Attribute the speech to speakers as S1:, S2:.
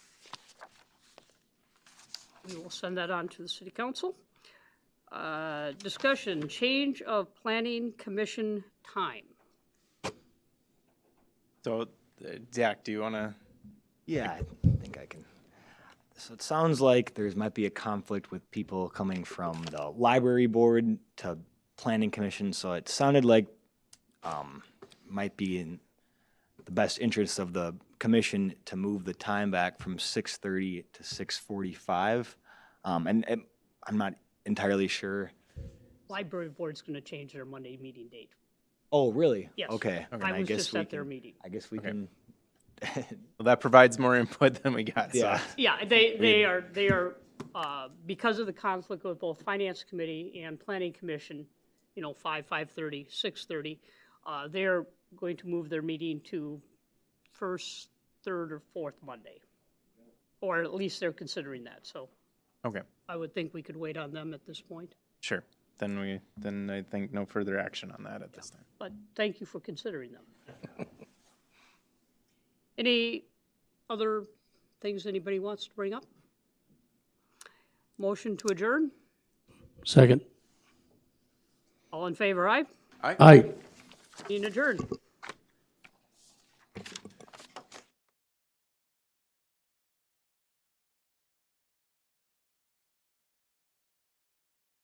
S1: We will send that on to the city council. Uh, Discussion, change of planning commission time.
S2: So, uh, Zach, do you want to?
S3: Yeah, I think I can. So it sounds like there's might be a conflict with people coming from the library board to planning commission, so it sounded like um, might be in the best interest of the commission to move the time back from six thirty to six forty-five. Um, and, and I'm not entirely sure.
S1: Library board's going to change their Monday meeting date.
S3: Oh, really?
S1: Yes.
S3: Okay. then
S1: I was
S3: guess
S1: just
S3: we
S1: at their
S3: can-
S1: meeting.
S3: I guess we can,
S2: Well, that provides more input than we got.
S3: yeah.
S2: So.
S1: Yeah, they, they are, they are, uh, because of the conflict with both Finance Committee and Planning Commission, you know, 5, 5:30, 6:30, uh, they're going to move their meeting to first, third, or fourth Monday. Or at least they're considering that, so
S2: Okay.
S1: I would think we could wait on them at this point.
S2: Sure. Then we. Then I think no further action on that at this time.
S1: But thank you for considering them. Any other things anybody wants to bring up? Motion to adjourn?
S4: Second.
S1: All in favor, aye?
S4: Aye.
S1: Meeting adjourned.